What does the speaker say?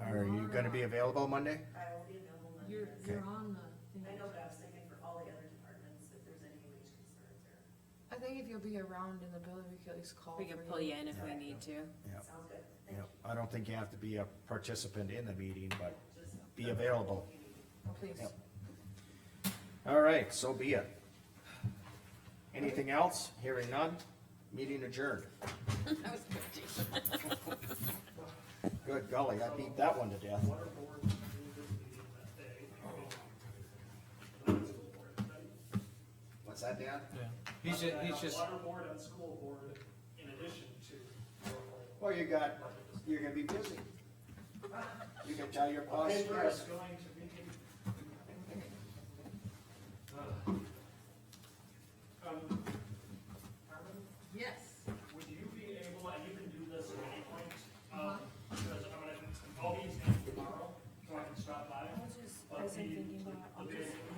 Are you gonna be available Monday? I will be available Monday. You're, yes. you're on the I thing. know, but I was thinking for all the other departments, if there's any wage concerns or, I think if you'll be around in the building, we could at least call. We can for pull you in if we need to. Yep. sounds good, thank Yep. you. I don't think you have to be a participant in the meeting, but Just be available. Please. Yep. All right, so be it. Anything else? Hearing none? Meeting adjourned. Good golly, I beat that one to death. water board to do this meeting that day. And school board, then- What's that, Dan? Yeah, he's, ju- he's just, Water board and school board in addition to. Well, you got, you're gonna be busy. You can tell your boss. Paper is yes. going to be. Um, Carmen, Yes. would you be able, and you can do this at any point, um, because I'm gonna, all these things tomorrow, so I can stop by. I was just, I But was the, thinking about, the big